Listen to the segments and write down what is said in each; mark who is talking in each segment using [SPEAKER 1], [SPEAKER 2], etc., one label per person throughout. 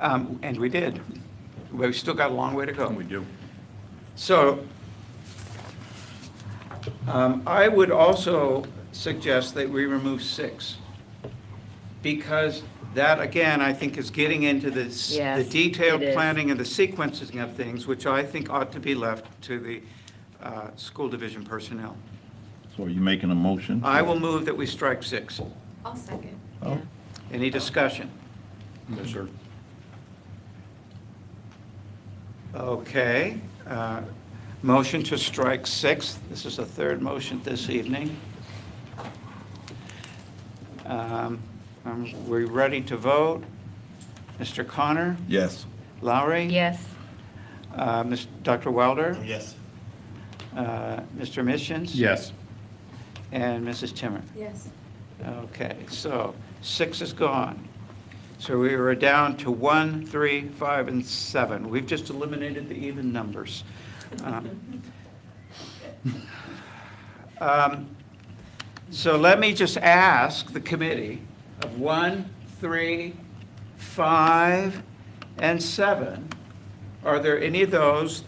[SPEAKER 1] Um, And we did. We've still got a long way to go.
[SPEAKER 2] We do.
[SPEAKER 1] So um, I would also suggest that we remove six, because that, again, I think is getting into the s- the
[SPEAKER 3] Yes,
[SPEAKER 1] detailed
[SPEAKER 3] it is.
[SPEAKER 1] planning and the sequencing of things, which I think ought to be left to the uh, school division personnel.
[SPEAKER 2] So are you making a motion?
[SPEAKER 1] I will move that we strike six.
[SPEAKER 4] I'll second.
[SPEAKER 2] Oh,
[SPEAKER 1] Any discussion?
[SPEAKER 2] Yes, sir.
[SPEAKER 1] Okay. uh, Motion to strike six. This is the third motion this evening. Um, um, We're ready to vote. Mr. Connor?
[SPEAKER 2] Yes.
[SPEAKER 1] Lowry?
[SPEAKER 3] Yes,
[SPEAKER 1] Uh, Ms. Dr. Wilder?
[SPEAKER 5] Yes.
[SPEAKER 1] uh, Mr. Missions?
[SPEAKER 2] Yes.
[SPEAKER 1] And Mrs. Timmer?
[SPEAKER 4] Yes.
[SPEAKER 1] Okay, so six is gone. So we were down to one, three, five, and seven. We've just eliminated the even numbers. Um, um, So let me just ask the committee of one, three, five, and seven, are there any of those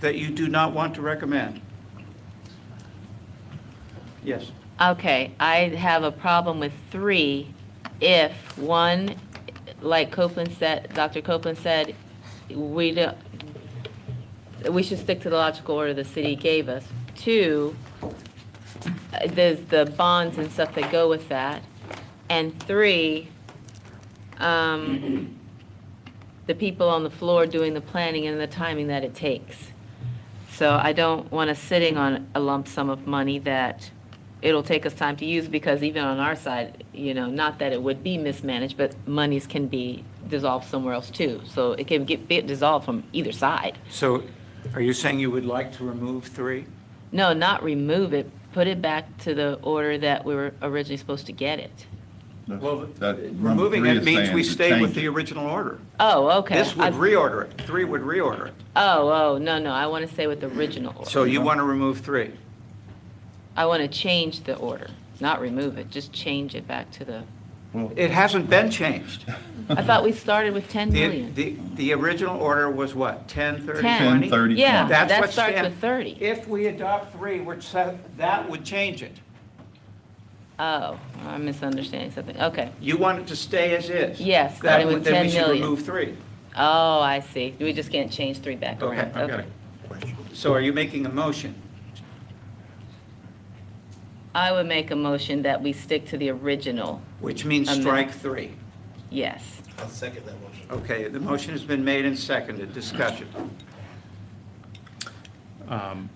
[SPEAKER 1] that you do not want to recommend? Yes?
[SPEAKER 3] okay, I have a problem with three if, one, like Copeland said, Dr. Copeland said, we don't, we should stick to the logical order the city gave us. Two, uh, there's the bonds and stuff that go with that. And three, um, the people on the floor doing the planning and the timing that it takes. So I don't want us sitting on a lump sum of money that it'll take us time to use because even on our side, you know, not that it would be mismanaged, but monies can be dissolved somewhere else too. So it can get be dissolved from either side.
[SPEAKER 1] So are you saying you would like to remove three?
[SPEAKER 3] No, not remove it, put it back to the order that we were originally supposed to get it.
[SPEAKER 1] Well, uh, removing it means we stay with the original order.
[SPEAKER 3] Oh, okay.
[SPEAKER 1] This would
[SPEAKER 3] I-
[SPEAKER 1] reorder it. Three would reorder it.
[SPEAKER 3] Oh, oh, no, no, I want to stay with the original order.
[SPEAKER 1] So you want to remove three?
[SPEAKER 3] I want to change the order, not remove it, just change it back to the,
[SPEAKER 1] It hasn't been changed.
[SPEAKER 3] I thought we started with 10
[SPEAKER 1] The,
[SPEAKER 3] million.
[SPEAKER 1] the, the original order was what, 10, 30,
[SPEAKER 3] 10.
[SPEAKER 1] 20?
[SPEAKER 2] 30,
[SPEAKER 3] Yeah,
[SPEAKER 2] 20.
[SPEAKER 1] That's
[SPEAKER 3] that
[SPEAKER 1] what
[SPEAKER 3] starts
[SPEAKER 1] Stan-
[SPEAKER 3] with 30.
[SPEAKER 1] If we adopt three, which sa- that would change it.
[SPEAKER 3] Oh, I'm misunderstanding something, okay.
[SPEAKER 1] You want it to stay as is?
[SPEAKER 3] Yes,
[SPEAKER 1] That
[SPEAKER 3] starting
[SPEAKER 1] would-
[SPEAKER 3] with
[SPEAKER 1] Then
[SPEAKER 3] 10
[SPEAKER 1] we should
[SPEAKER 3] million.
[SPEAKER 1] remove three.
[SPEAKER 3] Oh, I see, we just can't change three back
[SPEAKER 1] Okay,
[SPEAKER 3] around,
[SPEAKER 1] I've got
[SPEAKER 3] okay.
[SPEAKER 1] So are you making a motion?
[SPEAKER 3] I would make a motion that we stick to the original,
[SPEAKER 1] Which means
[SPEAKER 3] Amend.
[SPEAKER 1] strike three.
[SPEAKER 3] yes.
[SPEAKER 5] I'll second that motion.
[SPEAKER 1] Okay, the motion has been made and seconded. Discussion.
[SPEAKER 6] Um,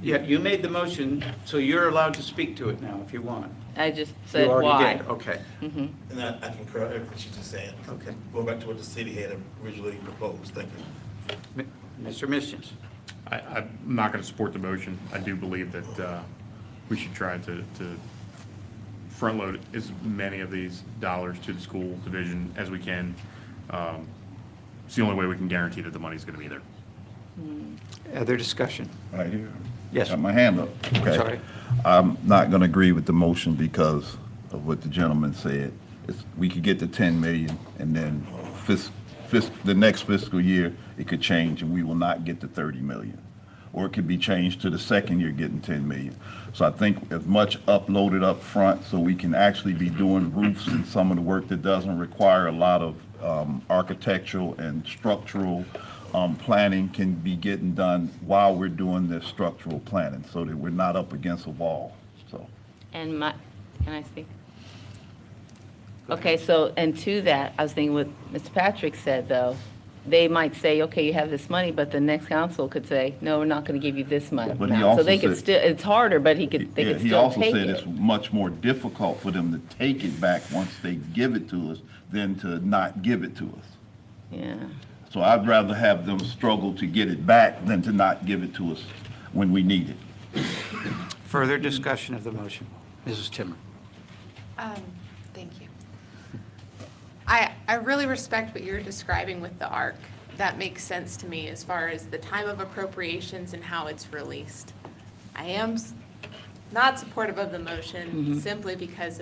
[SPEAKER 1] Yeah, you made the motion, so you're allowed to speak to it now if you want.
[SPEAKER 3] I just
[SPEAKER 1] You
[SPEAKER 3] said
[SPEAKER 1] already
[SPEAKER 3] why.
[SPEAKER 1] did. Oh. Okay,
[SPEAKER 3] Mhm.
[SPEAKER 5] And I, I concur with everything she just said.
[SPEAKER 1] Okay.
[SPEAKER 5] Going back to what the city had originally proposed, thank you.
[SPEAKER 1] M- Mr. Missions,
[SPEAKER 6] I, I'm not going to support the motion. I do believe that uh, we should try to, to front-load as many of these dollars to the school division as we can. Um, It's the only way we can guarantee that the money's going to be there.
[SPEAKER 1] other discussion?
[SPEAKER 2] Right here.
[SPEAKER 1] Yes.
[SPEAKER 2] Got my hand up. Okay.
[SPEAKER 1] Sorry.
[SPEAKER 2] I'm not going to agree with the motion because of what the gentleman said. It's- We could get to 10 million and then fis, fis, the next fiscal year, it could change and we will not get to 30 million. Or it could be changed to the second year getting 10 million. So I think as much uploaded up front so we can actually be doing roofs and some of the work that doesn't require a lot of um, architectural and structural um, planning can be getting done while we're doing this structural planning, so that we're not up against a wall, so.
[SPEAKER 3] And my, can I speak? Okay, so, and to that, I was thinking what Mr. Patrick said, though, they might say, okay, you have this money, but the next council could say, no, we're not going to give you this money.
[SPEAKER 2] But he
[SPEAKER 3] now. So
[SPEAKER 2] also
[SPEAKER 3] they could
[SPEAKER 2] said-
[SPEAKER 3] still, it's harder, but he could, they
[SPEAKER 2] Yeah,
[SPEAKER 3] could
[SPEAKER 2] he
[SPEAKER 3] still
[SPEAKER 2] also
[SPEAKER 3] take
[SPEAKER 2] said
[SPEAKER 3] it.
[SPEAKER 2] it's much more difficult for them to take it back once they give it to us than to not give it to us.
[SPEAKER 3] Yeah,
[SPEAKER 2] So I'd rather have them struggle to get it back than to not give it to us when we need it.
[SPEAKER 1] Further discussion of the motion. Mrs. Timmer.
[SPEAKER 4] Um, thank you. I, I really respect what you're describing with the arc. That makes sense to me as far as the time of appropriations and how it's released. I am s- not supportive of the motion simply because